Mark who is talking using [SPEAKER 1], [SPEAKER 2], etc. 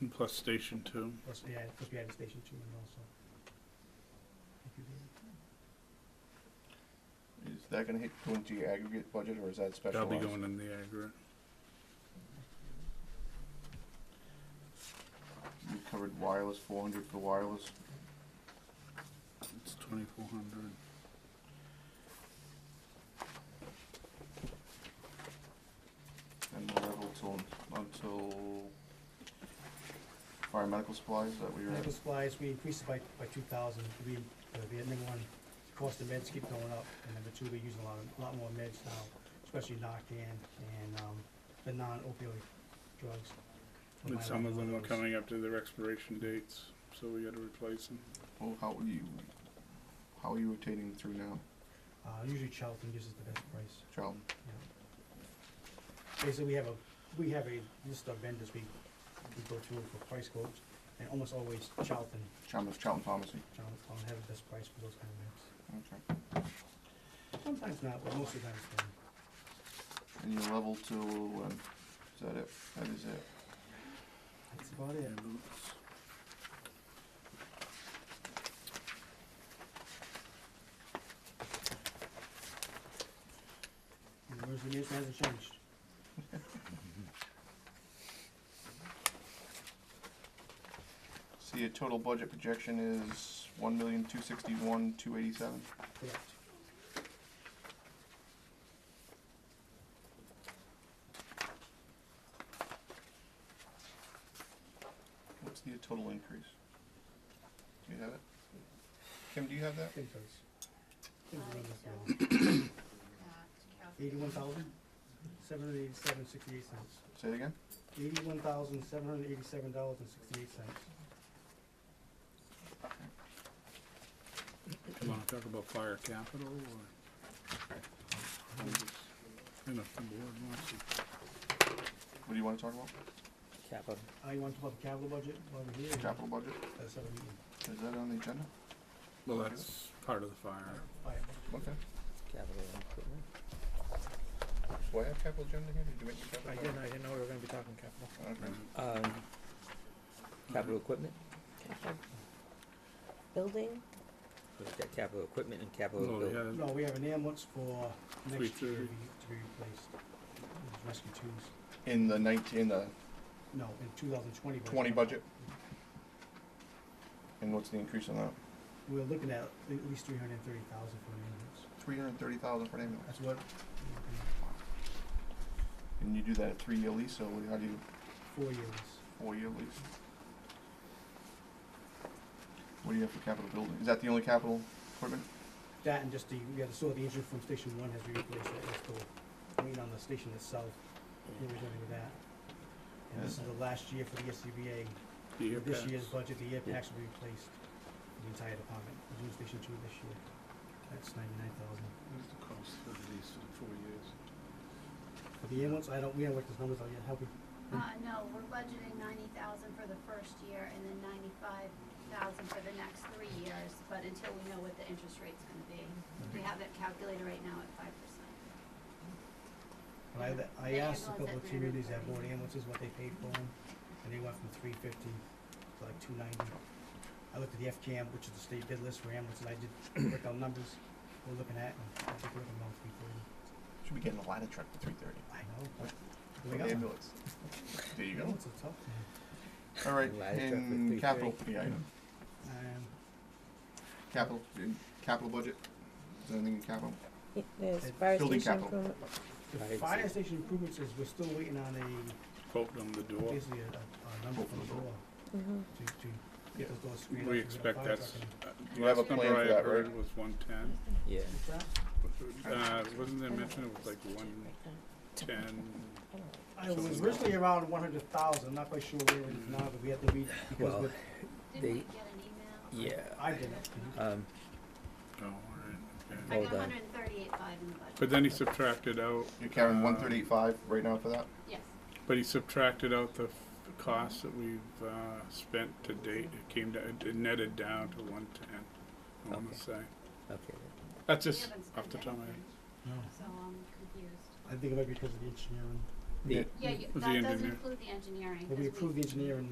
[SPEAKER 1] And Plus Station Two.
[SPEAKER 2] Plus, yeah, plus we added Station Two in also. Thank you, David.
[SPEAKER 3] Is that gonna hit, go into your aggregate budget, or is that
[SPEAKER 1] That'll
[SPEAKER 3] specialized?
[SPEAKER 1] be going in the aggregate.
[SPEAKER 3] You covered wireless, four hundred for wireless,
[SPEAKER 1] It's twenty-four hundred.
[SPEAKER 3] and the level till, until fire medical supplies, is that what you're at?
[SPEAKER 2] Medical supplies, we increased it by, by two thousand, we, uh, the ending one, cost of meds keep going up, and number two, we're using a lot, of- a lot more meds now, especially Narcan and, um, the non-opioid drugs. for
[SPEAKER 1] And
[SPEAKER 2] my
[SPEAKER 1] some of
[SPEAKER 2] level
[SPEAKER 1] them are
[SPEAKER 2] those.
[SPEAKER 1] coming up to their expiration dates, so we gotta replace them.
[SPEAKER 3] Well, how are you, how are you rotating through now,
[SPEAKER 2] Uh, usually Charlton gives us the best price,
[SPEAKER 3] Charlton?
[SPEAKER 2] you know. Basically, we have a, we have a list of vendors we, we go through for price quotes, and almost always Charlton,
[SPEAKER 3] Charlton, Charlton Pharmacy,
[SPEAKER 2] Charlton have the best price for those kind of meds.
[SPEAKER 3] okay.
[SPEAKER 2] Sometimes not, but most of the time it's them.
[SPEAKER 3] And your level till, when? Is that it? That is it.
[SPEAKER 2] That's about it.
[SPEAKER 1] Ambulance.
[SPEAKER 2] And where's the news hasn't changed.
[SPEAKER 3] See, your total budget projection is one million, two sixty-one, two eighty-seven.
[SPEAKER 2] Correct.
[SPEAKER 3] What's the total increase? Do you have it? Kim, do you have that?
[SPEAKER 2] I think those. Eighty-one
[SPEAKER 4] Eighty-one
[SPEAKER 2] thousand, seven hundred eighty-seven, sixty-eight cents.
[SPEAKER 3] Say it again?
[SPEAKER 2] Eighty-one thousand, seven hundred eighty-seven dollars and sixty-eight cents.
[SPEAKER 1] You wanna talk about fire capital or? And if the board wants to,
[SPEAKER 3] What do you wanna talk about?
[SPEAKER 5] Capital.
[SPEAKER 2] Uh, you want to talk about the capital budget while we're here?
[SPEAKER 3] Capital budget?
[SPEAKER 2] That's what we need.
[SPEAKER 3] Is that on the agenda?
[SPEAKER 1] well, that's part of the fire.
[SPEAKER 2] Fire.
[SPEAKER 3] Okay.
[SPEAKER 5] Capital improvement.
[SPEAKER 3] Do I have capital agenda here? Did you make your capital?
[SPEAKER 5] I didn't, I didn't know we were gonna be talking capital.
[SPEAKER 3] Okay.
[SPEAKER 5] Um, capital equipment,
[SPEAKER 4] Building,
[SPEAKER 5] we've got capital equipment and capital
[SPEAKER 1] No, we
[SPEAKER 5] building.
[SPEAKER 1] had,
[SPEAKER 2] No, we have an ambulance for
[SPEAKER 1] Three
[SPEAKER 2] next year to
[SPEAKER 1] thirty.
[SPEAKER 2] be, to be replaced. Those Rescue twos,
[SPEAKER 3] In the nineteen, in the
[SPEAKER 2] no, in two thousand twenty budget.
[SPEAKER 3] twenty budget? And what's the increase on that?
[SPEAKER 2] We're looking at at least three hundred and thirty thousand for an ambulance.
[SPEAKER 3] Three hundred and thirty thousand for an ambulance.
[SPEAKER 2] That's what.
[SPEAKER 3] And you do that at three-year lease, so what- how do you,
[SPEAKER 2] Four years.
[SPEAKER 3] four-year lease? What do you have for capital building? Is that the only capital equipment?
[SPEAKER 2] That and just the, we had to sort the engine from station one has replaced that, that's the, wait on the station itself, where we're going with that. And this is the last year for the SCBA,
[SPEAKER 1] the air
[SPEAKER 2] this year's
[SPEAKER 1] packs.
[SPEAKER 2] budget, the air packs will be replaced, for the entire department, we're doing station two this year. That's ninety-nine thousand.
[SPEAKER 1] What is the cost for the lease in four years?
[SPEAKER 2] For the ambulance, I don't, we haven't worked those numbers out yet, have we?
[SPEAKER 4] uh, no, we're budgeting ninety thousand for the first year and then ninety-five thousand for the next three years, but until we know what the interest rate's gonna be. We have it calculated right now at five percent.
[SPEAKER 2] But I, let- I
[SPEAKER 4] The
[SPEAKER 2] asked a
[SPEAKER 4] ambulance
[SPEAKER 2] couple
[SPEAKER 4] at
[SPEAKER 2] of communities that
[SPEAKER 4] 330.
[SPEAKER 2] bought ambulances, what they paid for them, and they went from three fifty to like two ninety. I looked at the FCAM, which is the state bid list for ambulances, I did work out numbers we're looking at, and I think we're looking around three forty.
[SPEAKER 3] Should be getting a ladder truck for three thirty.
[SPEAKER 2] I know, but we got
[SPEAKER 3] An
[SPEAKER 2] one.
[SPEAKER 3] ambulance. There you go.
[SPEAKER 2] Ambulance are tough, man.
[SPEAKER 3] All right,
[SPEAKER 5] Ladder truck for
[SPEAKER 3] in
[SPEAKER 5] 330.
[SPEAKER 3] capital, yeah, I know.
[SPEAKER 2] Um,
[SPEAKER 3] Capital, in capital budget? Is there anything in capital?
[SPEAKER 6] Yeah, There's
[SPEAKER 2] And
[SPEAKER 6] fire
[SPEAKER 3] building
[SPEAKER 6] station
[SPEAKER 3] capital.
[SPEAKER 6] improvement.
[SPEAKER 5] Fire
[SPEAKER 2] The fire
[SPEAKER 5] exit.
[SPEAKER 2] station improvements is, we're still waiting on a,
[SPEAKER 1] Quote on the door.
[SPEAKER 2] basically a, a, a number
[SPEAKER 3] Open
[SPEAKER 2] from the
[SPEAKER 3] the door.
[SPEAKER 2] door
[SPEAKER 6] Mhm.
[SPEAKER 2] to, to get those doors screened.
[SPEAKER 1] We
[SPEAKER 2] up so we got a
[SPEAKER 1] expect
[SPEAKER 2] fire
[SPEAKER 1] that's,
[SPEAKER 2] truck in.
[SPEAKER 1] uh,
[SPEAKER 3] You have a
[SPEAKER 1] last number
[SPEAKER 3] plan for
[SPEAKER 1] I
[SPEAKER 3] that,
[SPEAKER 1] heard
[SPEAKER 3] right?
[SPEAKER 1] Was one ten.
[SPEAKER 5] Yeah,
[SPEAKER 2] What's that?
[SPEAKER 1] Uh, wasn't there mention it was like one ten?
[SPEAKER 2] I was originally around one hundred thousand, not quite sure where it is now, but we had to meet because
[SPEAKER 5] well,
[SPEAKER 2] with,
[SPEAKER 4] Didn't we
[SPEAKER 5] They-
[SPEAKER 4] get an email?
[SPEAKER 5] yeah,
[SPEAKER 2] I did it.
[SPEAKER 5] um,
[SPEAKER 1] Oh, all right,
[SPEAKER 4] I
[SPEAKER 1] okay.
[SPEAKER 5] Oh.
[SPEAKER 4] got
[SPEAKER 5] Hold on.
[SPEAKER 4] hundred and thirty-eight five in the budget.
[SPEAKER 1] But then he subtracted out.
[SPEAKER 3] You're carrying
[SPEAKER 1] uh,
[SPEAKER 3] one thirty-eight five right now for that?
[SPEAKER 4] Yes,
[SPEAKER 1] But he subtracted out the f- the costs that we've, uh, spent to date, it came down, it netted down to one ten, I wanna
[SPEAKER 5] Okay.
[SPEAKER 1] say.
[SPEAKER 5] okay.
[SPEAKER 1] That's
[SPEAKER 4] we
[SPEAKER 1] just
[SPEAKER 4] haven't
[SPEAKER 1] off
[SPEAKER 4] spent
[SPEAKER 1] the top of my head.
[SPEAKER 4] anything, so I'm confused.
[SPEAKER 2] I think it might be because of the engineering,
[SPEAKER 5] The-
[SPEAKER 4] Yeah, you-
[SPEAKER 1] The
[SPEAKER 4] that doesn't
[SPEAKER 1] engineer.
[SPEAKER 4] include the engineering.
[SPEAKER 2] but we
[SPEAKER 4] 'cause we-
[SPEAKER 2] approved the engineering